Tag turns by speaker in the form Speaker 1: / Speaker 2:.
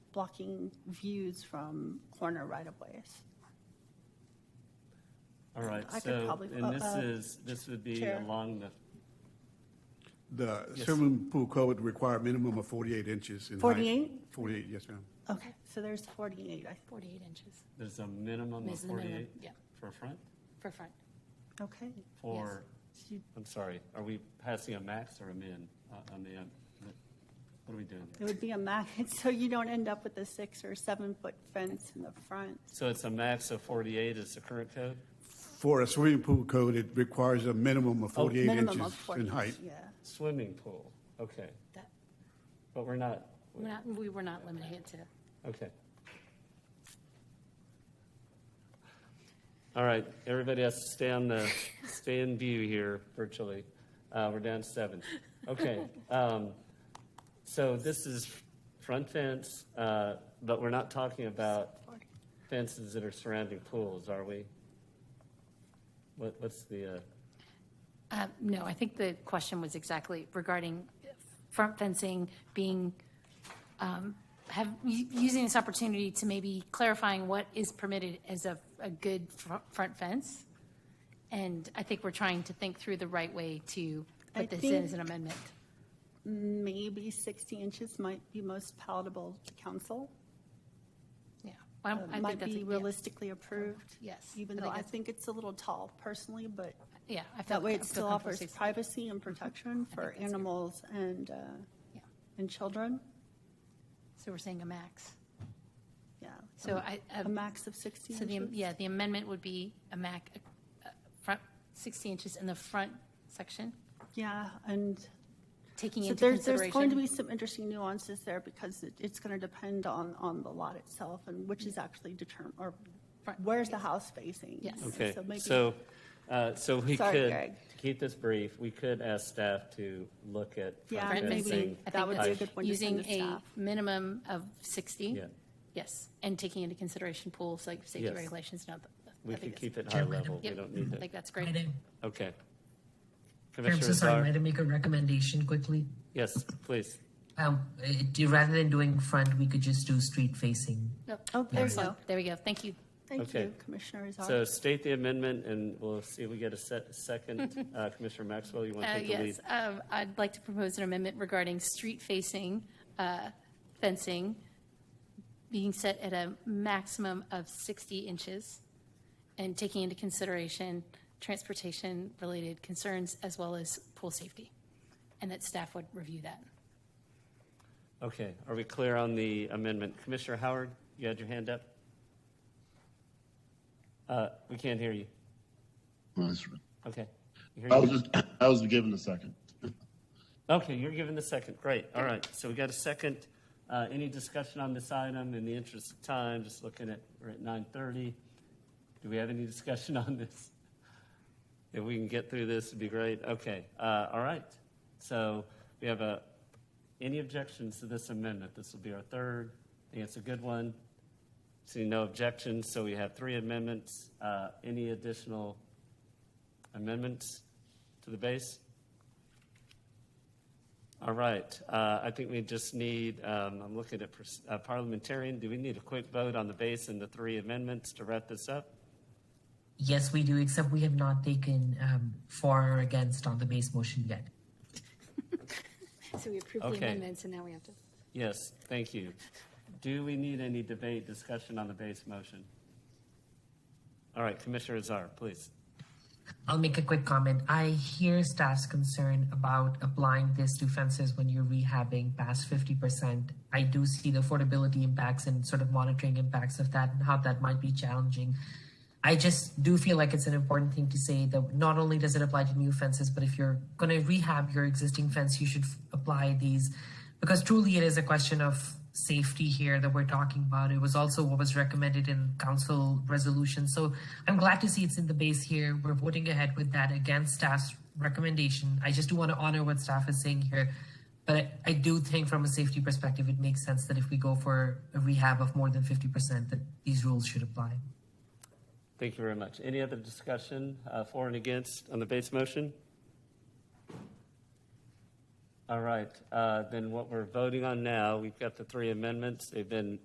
Speaker 1: blocking views from corner right-of-ways.
Speaker 2: All right,
Speaker 1: I could
Speaker 2: so,
Speaker 1: probably- uh,
Speaker 2: and this
Speaker 1: uh,
Speaker 2: is, this would be
Speaker 1: Chair.
Speaker 2: along the,
Speaker 3: The
Speaker 2: Yes.
Speaker 3: swimming pool code require minimum of 48 inches in height.
Speaker 1: 48?
Speaker 3: 48, yes, ma'am.
Speaker 1: Okay, so there's 48, I-
Speaker 4: 48 inches
Speaker 2: there's a minimum of
Speaker 4: There's a minimum,
Speaker 2: 48
Speaker 4: yeah.
Speaker 2: for front?
Speaker 4: for front.
Speaker 1: okay.
Speaker 2: For,
Speaker 1: So you-
Speaker 2: I'm sorry, are we passing a max or a min, uh, a min? What are we doing?
Speaker 1: It would be a max, so you don't end up with a six or seven-foot fence in the front.
Speaker 2: So it's a max of 48 is the current code?
Speaker 3: For a swimming pool code, it requires a minimum of 48
Speaker 1: Minimum
Speaker 3: inches
Speaker 1: of 40,
Speaker 3: in height.
Speaker 1: Yeah.
Speaker 2: Swimming pool, okay,
Speaker 4: That,
Speaker 2: but we're not,
Speaker 4: we're not, we were not limited to,
Speaker 2: okay. All right, everybody has to stay on the, stay in view here virtually. Uh, We're down seven. Okay. um, So this is front fence, uh, but we're not talking about
Speaker 1: 40.
Speaker 2: fences that are surrounding pools, are we? What, what's the, uh,
Speaker 4: Uh, no, I think the question was exactly regarding uh, front fencing being, um, have, u- using this opportunity to maybe clarifying what is permitted as a, a good fr- front fence. And I think we're trying to think through the right way to
Speaker 1: I
Speaker 4: put this in as
Speaker 1: think-
Speaker 4: an amendment.
Speaker 1: Maybe 60 inches might be most palatable to council.
Speaker 4: Yeah. Well, I
Speaker 1: uh,
Speaker 4: think
Speaker 1: Might
Speaker 4: that's a-
Speaker 1: be
Speaker 4: yeah.
Speaker 1: realistically approved.
Speaker 4: Yes,
Speaker 1: Even
Speaker 4: I
Speaker 1: though
Speaker 4: think
Speaker 1: I
Speaker 4: that's-
Speaker 1: think it's a little tall personally, but
Speaker 4: Yeah. I feel-
Speaker 1: that way
Speaker 4: I
Speaker 1: it
Speaker 4: feel
Speaker 1: still
Speaker 4: comfortable
Speaker 1: offers
Speaker 4: six-
Speaker 1: privacy and protection for
Speaker 4: that's good.
Speaker 1: animals and, uh,
Speaker 4: yeah.
Speaker 1: and children.
Speaker 4: So we're saying a max.
Speaker 1: Yeah.
Speaker 4: So I, I- um,
Speaker 1: A max of 60
Speaker 4: So the,
Speaker 1: inches.
Speaker 4: yeah, the amendment would be a MAC, uh, front, 60 inches in the front section,
Speaker 1: Yeah, and
Speaker 4: taking
Speaker 1: So
Speaker 4: into
Speaker 1: there's,
Speaker 4: consideration.
Speaker 1: there's going to be some interesting nuances there because it- it's going to depend on, on the lot itself and which is actually determined, or
Speaker 4: Front,
Speaker 1: where's the house facing?
Speaker 4: Yes.
Speaker 2: okay,
Speaker 1: maybe-
Speaker 2: so, uh, so we
Speaker 1: Sorry,
Speaker 2: could, to
Speaker 1: Greg.
Speaker 2: keep this brief, we could ask staff to look at
Speaker 1: Yeah,
Speaker 2: front
Speaker 1: maybe
Speaker 2: fencing.
Speaker 4: I
Speaker 1: that
Speaker 4: think
Speaker 1: would be a
Speaker 4: that's
Speaker 1: good one to send to staff.
Speaker 4: Using a minimum of 60.
Speaker 2: Yeah.
Speaker 4: Yes, and taking into consideration pool, so like safety
Speaker 2: Yes.
Speaker 4: regulations, no.
Speaker 2: We can keep it high level, we don't need
Speaker 4: I think
Speaker 2: to,
Speaker 4: that's great.
Speaker 5: Might I,
Speaker 2: okay.
Speaker 5: I'm so
Speaker 2: Commissioner
Speaker 5: sorry,
Speaker 2: Czar,
Speaker 5: might I make a recommendation quickly?
Speaker 2: yes, please.
Speaker 5: Um, it- rather than doing front, we could just do street facing.
Speaker 4: Nope.
Speaker 1: Oh, there you go.
Speaker 4: Excellent. There we go, thank you.
Speaker 1: Thank
Speaker 2: Okay.
Speaker 1: you, Commissioner
Speaker 2: So
Speaker 1: Azar.
Speaker 2: state the amendment, and we'll see if we get a se- second. Uh, Commissioner Maxwell, you want to
Speaker 4: Uh,
Speaker 2: take the lead?
Speaker 4: Yes, um, I'd like to propose an amendment regarding street-facing uh, fencing being set at a maximum of 60 inches and taking into consideration transportation-related concerns as well as pool safety, and that staff would review that.
Speaker 2: Okay, are we clear on the amendment? Commissioner Howard, you had your hand up? Uh, We can't hear you.
Speaker 6: Nice one.
Speaker 2: Okay. We hear
Speaker 6: I
Speaker 2: you.
Speaker 6: was just, I was given a second.
Speaker 2: Okay, you're given the second, great, all right. So we got a second. Uh, Any discussion on this item in the interest of time, just looking at, we're at 9:30. Do we have any discussion on this? If we can get through this, it'd be great. Okay, uh, all right. So we have a, any objections to this amendment? This will be our third. I think it's a good one. Seeing no objections, so we have three amendments. Uh, Any additional amendments to the base? All right, uh, I think we just need, um, I'm looking at pers- uh, parliamentarian, do we need a quick vote on the base and the three amendments to wrap this up?
Speaker 5: Yes, we do, except we have not taken, um, for or against on the base motion yet.
Speaker 4: So we approve
Speaker 2: the Okay. amendments,
Speaker 4: and now we have to.
Speaker 2: Yes, thank you. Do we need any debate, discussion on the base motion? All right, Commissioner Azar, please.
Speaker 5: I'll make a quick comment. I hear staff's concern about applying this to fences when you're rehabbing past 50%. I do see the affordability impacts and sort of monitoring impacts of that and how that might be challenging. I just do feel like it's an important thing to say that not only does it apply to new fences, but if you're going to rehab your existing fence, you should f- apply these because truly it is a question of safety here that we're talking about. It was also what was recommended in council resolution. So I'm glad to see it's in the base here. We're voting ahead with that against staff's recommendation. I just do want to honor what staff is saying here. But I, I do think from a safety perspective, it makes sense that if we go for a rehab of more than 50%, that these rules should apply.
Speaker 2: Thank you very much. Any other discussion, uh, for and against on the base motion? All right, uh, then what we're voting on now, we've got the three amendments. They've been